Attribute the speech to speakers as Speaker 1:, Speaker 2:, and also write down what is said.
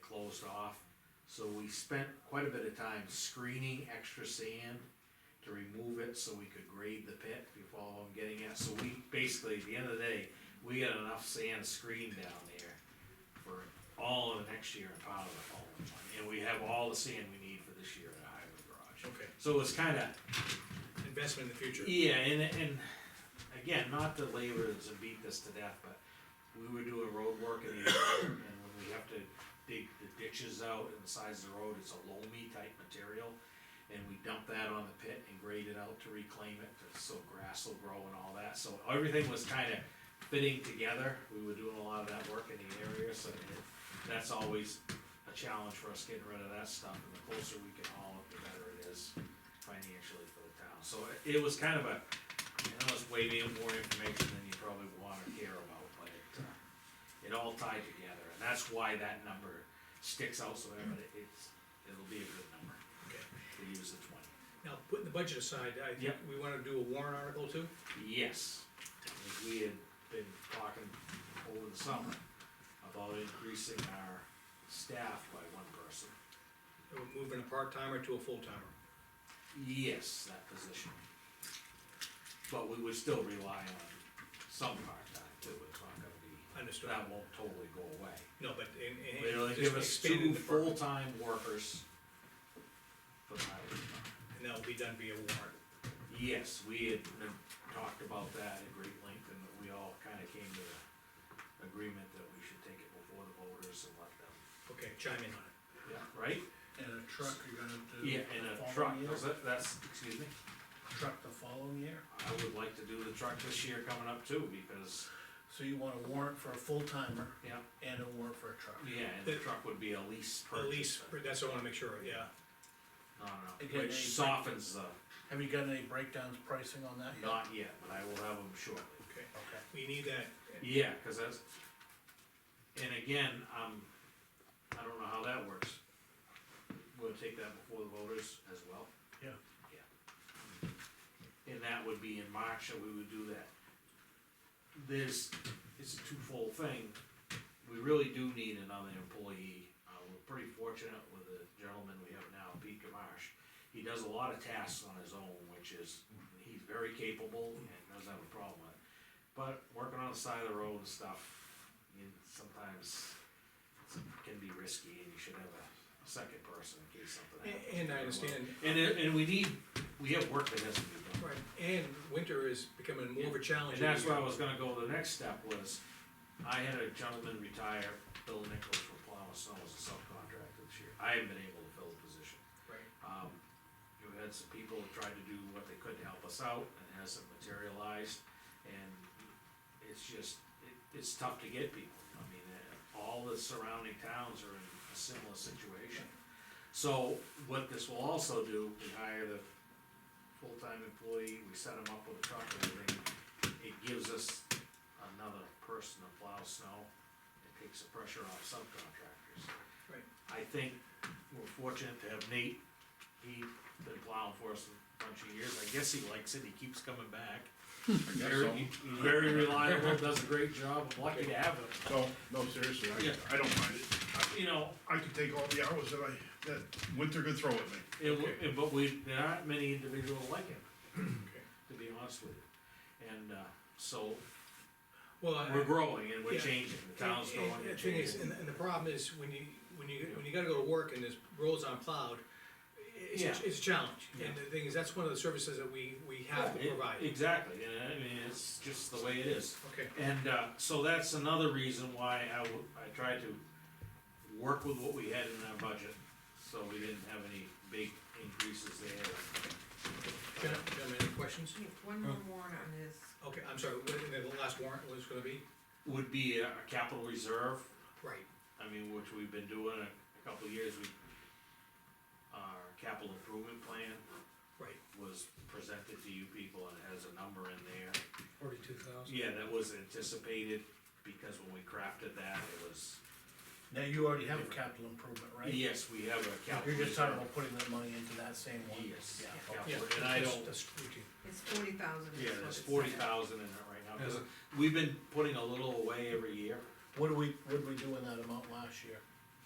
Speaker 1: closed off. So we spent quite a bit of time screening extra sand to remove it so we could grade the pit, if you follow what I'm getting at. So we, basically, at the end of the day, we got enough sand screened down there for all of the next year and part of the following one. And we have all the sand we need for this year at Highway Garage.
Speaker 2: Okay,
Speaker 1: So it's kinda,
Speaker 2: investment in the future.
Speaker 1: yeah, and, and again, not to labor this and beat this to death, but we were doing road work in the, and when we have to dig the ditches out and the sides of the road, it's a loamy type material. And we dump that on the pit and grade it out to reclaim it, to- so grass will grow and all that, so everything was kinda fitting together. We were doing a lot of that work in the area, so it- that's always a challenge for us getting rid of that stuff, and the closer we can haul it, the better it is financially for the town. So it- it was kind of a, I know it's way more information than you probably wanna care about, but it, uh, it all tied together, and that's why that number sticks out so evident, it's, it'll be a good number
Speaker 2: Okay.
Speaker 1: to use the twenty.
Speaker 2: Now, putting the budget aside, I think
Speaker 1: Yep.
Speaker 2: we wanna do a warrant article too?
Speaker 1: Yes, as we had been talking over the summer about increasing our staff by one person.
Speaker 2: Or Moving a part-timer to a full-timer?
Speaker 1: Yes, that position. But we would still rely on some part-time too, it's not gonna be,
Speaker 2: Understood.
Speaker 1: that won't totally go away.
Speaker 2: No, but in, in.
Speaker 1: It'll
Speaker 2: just
Speaker 1: give us
Speaker 2: expand
Speaker 1: two
Speaker 2: the department,
Speaker 1: full-time workers. for the highway department.
Speaker 2: And that'll be done via warrant.
Speaker 1: Yes, we had been- talked about that at great length, and we all kinda came to the agreement that we should take it before the voters and let them,
Speaker 2: Okay, chime in on
Speaker 1: yeah,
Speaker 2: it.
Speaker 1: right?
Speaker 3: And a truck you're gonna do.
Speaker 1: Yeah,
Speaker 3: the
Speaker 1: and a
Speaker 3: following
Speaker 1: truck,
Speaker 3: year?
Speaker 1: is that, that's, excuse me?
Speaker 3: Truck the following year,
Speaker 1: I would like to do the truck this year coming up too, because,
Speaker 3: so you want a warrant for a full timer
Speaker 1: yeah,
Speaker 3: and a warrant for a truck.
Speaker 1: Yeah, and the truck would be a lease
Speaker 2: At
Speaker 1: purchase,
Speaker 2: least, that's what I wanna make sure, of, yeah.
Speaker 1: no, no,
Speaker 3: Again,
Speaker 1: which
Speaker 3: they-
Speaker 1: softens the,
Speaker 3: Have you got any breakdowns pricing on that yet?
Speaker 1: not yet, but I will have them shortly.
Speaker 2: Okay,
Speaker 3: Okay,
Speaker 2: we need that.
Speaker 1: Yeah, cause that's, and again, um, I don't know how that works. We'll take that before the voters as well,
Speaker 3: yeah,
Speaker 1: and that would be in March that we would do that. There's, it's a twofold thing, we really do need another employee, uh, we're pretty fortunate with the gentleman we have now, Pete Gamache. He does a lot of tasks on his own, which is, he's very capable and doesn't have a problem with it. But working on the side of the road and stuff, you sometimes can be risky and you should have a second person in case something happens.
Speaker 2: And- and I understand.
Speaker 1: And, it- and we need, we have work that has to be done.
Speaker 2: Right, and winter is becoming more of a challenge.
Speaker 1: And that's
Speaker 2: every
Speaker 1: where I
Speaker 2: year.
Speaker 1: was gonna go, the next step was, I had a gentleman retire, Bill Nichols from Plow and Snow as a subcontractor this year. I haven't been able to fill the position.
Speaker 2: Right,
Speaker 1: Um, you had some people who tried to do what they could to help us out, and it hasn't materialized, and it's just, it, it's tough to get people. I mean, uh, all the surrounding towns are in a similar situation. So what this will also do, we hire the full-time employee, we set them up with a truck and everything, it gives us another person to plow snow, it takes the pressure off subcontractors.
Speaker 2: right.
Speaker 1: I think we're fortunate to have Nate, he's been plowing for us a bunch of years, I guess he likes it, he keeps coming back. Very, he's very reliable, does a great job, I'm lucky to have him,
Speaker 4: No, no, seriously,
Speaker 1: Yeah.
Speaker 4: I, I don't mind it.
Speaker 1: you know,
Speaker 4: I could take all the hours that I, that winter could throw at me.
Speaker 1: it, wa- it- but we, there aren't many individuals like him,
Speaker 2: Okay.
Speaker 1: to be honest with you. And, uh, so,
Speaker 2: Well, I.
Speaker 1: we're growing and we're
Speaker 2: Yeah.
Speaker 1: changing, the town's
Speaker 2: And- and
Speaker 1: growing
Speaker 2: The
Speaker 1: and
Speaker 2: thing is, and,
Speaker 1: changing.
Speaker 2: and the problem is, when you, when you, when you gotta go to work and there's roads unplowed, it's,
Speaker 1: Yeah.
Speaker 2: it's a challenge, and
Speaker 1: Yeah.
Speaker 2: the thing is, that's one of the services that we, we have to
Speaker 1: It-
Speaker 2: provide,
Speaker 1: Exactly, and I mean, it's just the way it is.
Speaker 2: okay,
Speaker 1: And, uh, so that's another reason why I w- I tried to work with what we had in our budget, so we didn't have any big increases there.
Speaker 2: gentlemen, gentlemen, any questions?
Speaker 5: Yeah, one more warrant on this,
Speaker 2: Okay, I'm sorry, what, the last warrant was gonna be,
Speaker 1: Would be a a capital reserve,
Speaker 2: right,
Speaker 1: I mean, which we've been doing a, a couple of years, we, our capital improvement plan
Speaker 2: right,
Speaker 1: was presented to you people and has a number in there.
Speaker 6: Forty-two thousand.
Speaker 1: Yeah, that was anticipated, because when we crafted that, it was,
Speaker 3: now you already have a capital improvement, right?
Speaker 1: yes, we have a capital.
Speaker 3: You're just talking
Speaker 1: reserve.
Speaker 3: about putting that money into that same one?
Speaker 1: Yes,
Speaker 3: Yeah, okay.
Speaker 2: yeah.
Speaker 1: capital, and I
Speaker 2: that's-
Speaker 1: don't,
Speaker 2: That's routine,
Speaker 5: it's forty thousand.
Speaker 1: yeah, there's forty thousand in it right now, cause we've been putting a little away every year.
Speaker 3: What do we, what did we do in that amount last year?